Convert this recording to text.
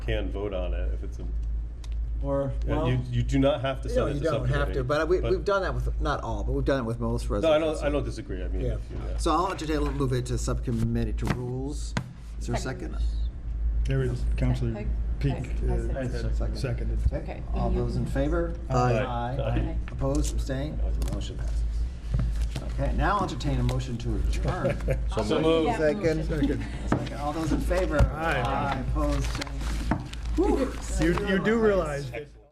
can vote on it if it's a, Or, yeah, well, you, you do not have to No, send it you to don't have to, subcommittee, but we, we've done that with, not all, but we've done it with most No, I resolutions. don't, I don't disagree, I mean, Yeah. if you, yeah. So I'll entertain, we'll move it to subcommittee to rules. Is there a second? There is Counselor I- Peak I- I said- uh, seconded. Okay. All those in favor? Aye. Aye. Opposed, abstained? Motion passes. Okay, now I'll entertain a motion to adjourn. So moved. Second. Second, All those in favor? Aye. Opposed, abstained? You, you do realize that